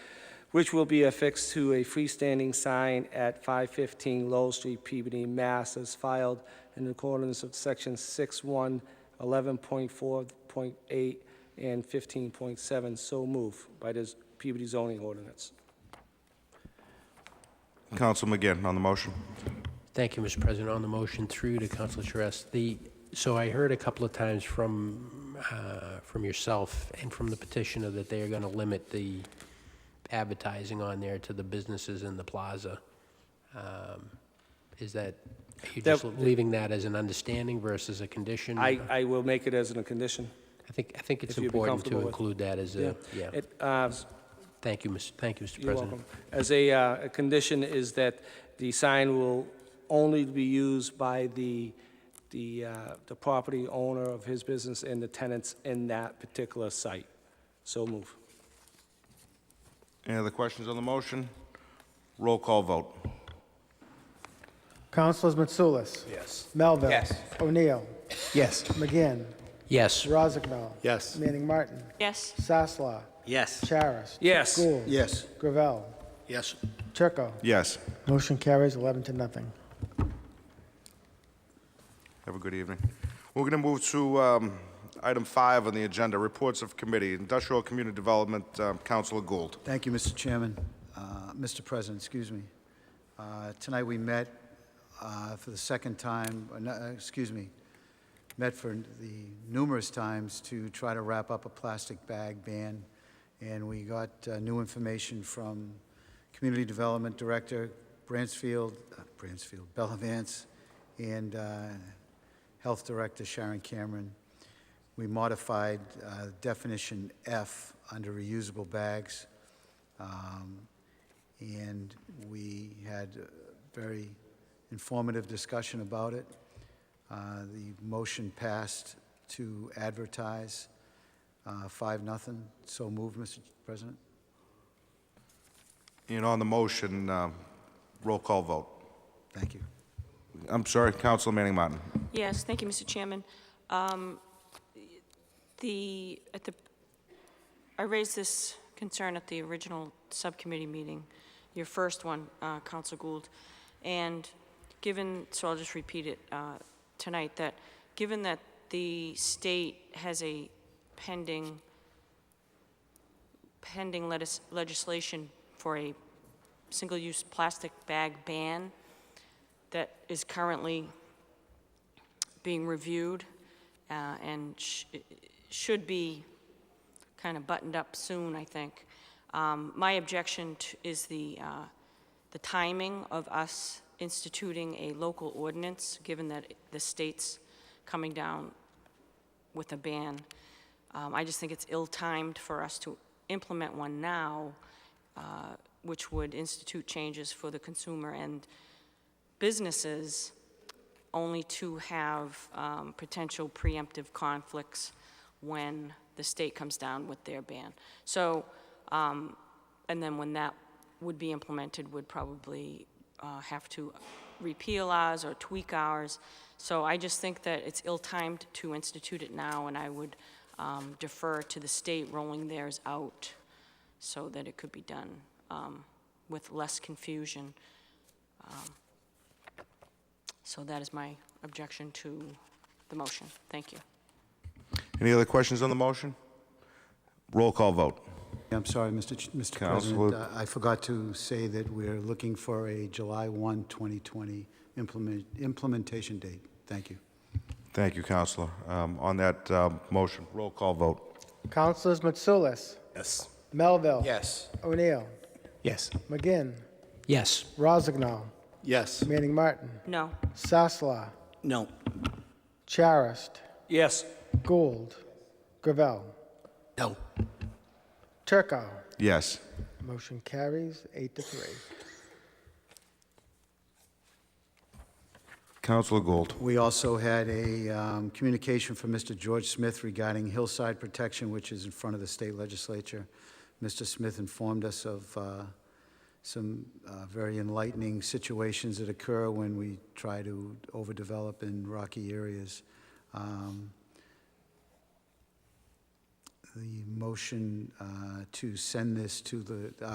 which will be affixed to a freestanding sign at 515 Lowell Street, Peabody, Mass., as filed in accordance with Section 61, 11.4.8, and 15.7, so move by this Peabody zoning ordinance. Counsel McGinn on the motion. Thank you, Mr. President. On the motion through to Councilor Charest, the, so I heard a couple of times from, uh, from yourself and from the petitioner that they are going to limit the advertising on there to the businesses in the plaza. Um, Is that, are you just That- leaving that as an understanding versus a condition? I, I will make it as a condition. I think, I think it's If you'd be important comfortable to with- include that as a, yeah. It, uh, Thank you, Mr. thank you, Mr. You're President. welcome. As a, uh, a condition is that the sign will only be used by the, the, uh, the property owner of his business and the tenants in that particular site. So move. Any other questions on the motion? Roll call vote. Councilors Mitsoulas. Yes. Melville. Yes. O'Neill. Yes. McGinn. Yes. Rosignol. Yes. Manning Martin. yes, Sasla. Yes. Charis. Yes. Gould. Yes. Gravel. Yes. Turco. Yes. Motion carries 11 to nothing. Have a good evening. We're going to move to um, item five on the agenda, reports of committee, Industrial Community Development, um, Councilor Gould. Thank you, Mr. Chairman, Uh, Mr. President, excuse me. Uh, Tonight, we met uh, for the second time, uh, no, uh, excuse me, met for the numerous times to try to wrap up a plastic bag ban, and we got uh, new information from Community Development Director Bransfield, uh, Bransfield, Bella Vance, and uh, Health Director Sharon Cameron. We modified uh, definition F under reusable bags. Um, And we had a very informative discussion about it. Uh, The motion passed to advertise, uh, five, nothing. So moved, Mr. President. And on the motion, um, roll call vote. Thank you. I'm sorry, Councilor Manning Martin. yes. Thank you, Mr. Chairman. Um, The, at the, I raised this concern at the original subcommittee meeting, your first one, uh, Counsel Gould, and given, so I'll just repeat it uh, tonight, that given that the state has a pending, pending letis- legislation for a single-use plastic bag ban that is currently being reviewed uh, and sh- should be kind of buttoned up soon, I think. Um, My objection t- is the, uh, the timing of us instituting a local ordinance, given that the state's coming down with a ban. Um, I just think it's ill-timed for us to implement one now, uh, which would institute changes for the consumer and businesses only to have um, potential preemptive conflicts when the state comes down with their ban. So, um, and then when that would be implemented, would probably uh, have to repeal ours or tweak ours. So I just think that it's ill-timed to institute it now, and I would um, defer to the state rolling theirs out so that it could be done um, with less confusion. So that is my objection to the motion. Thank you. Any other questions on the motion? Roll call vote. I'm sorry, Mr. Ch- Mr. President. Counselor- Uh, I forgot to say that we're looking for a July 1, 2020 implement- implementation date. Thank you. Thank you, Councilor. Um, On that um, motion, roll call vote. Councilors Mitsoulas. Yes. Melville. Yes. O'Neill. Yes. McGinn. Yes. Rosignol. Yes. Manning Martin. No. Sasla. No. Charist. Yes. Gould. Gravel. No. Turco. Yes. Motion carries eight to three. Councilor Gould. We also had a um, communication from Mr. George Smith regarding hillside protection, which is in front of the state legislature. Mr. Smith informed us of uh, some uh, very enlightening situations that occur when we try to overdevelop in rocky areas. Um, The motion uh, to send this to the,